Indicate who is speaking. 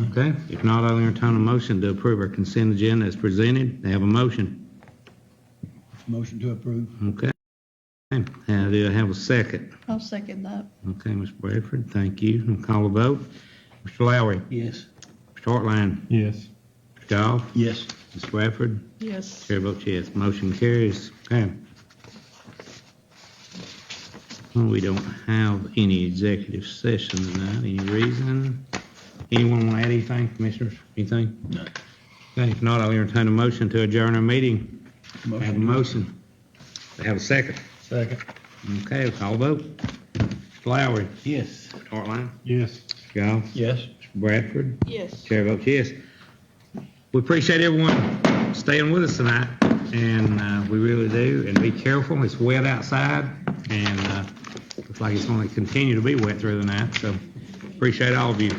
Speaker 1: Okay, if not, I'll entertain a motion to approve our consent agenda as presented. They have a motion.
Speaker 2: Motion to approve.
Speaker 1: Okay. And do I have a second?
Speaker 3: I'll second that.
Speaker 1: Okay, Ms. Bradford, thank you. I'll call a vote. Mr. Lowry,
Speaker 2: Yes.
Speaker 1: Mr. Hartline,
Speaker 4: Yes.
Speaker 1: Mr. Goff,
Speaker 2: Yes.
Speaker 1: Ms. Bradford,
Speaker 3: Yes.
Speaker 1: Chair votes yes, motion carries. Okay. Well, we don't have any executive session tonight, any reason? Anyone want to add anything, commissioners, anything?
Speaker 2: No.
Speaker 1: Okay, if not, I'll entertain a motion to adjourn our meeting. I have a
Speaker 2: Motion.
Speaker 1: motion. I have a second.
Speaker 4: Second.
Speaker 1: Okay, call vote. Mr. Lowry,
Speaker 2: Yes.
Speaker 1: Mr. Hartline,
Speaker 4: Yes.
Speaker 1: Mr. Goff,
Speaker 2: Yes.
Speaker 1: Mr. Bradford,
Speaker 3: Yes.
Speaker 1: Chair votes yes. We appreciate everyone staying with us tonight, and uh, we really do. And be careful, it's wet outside, and uh, looks like it's going to continue to be wet through the night, so appreciate all of you.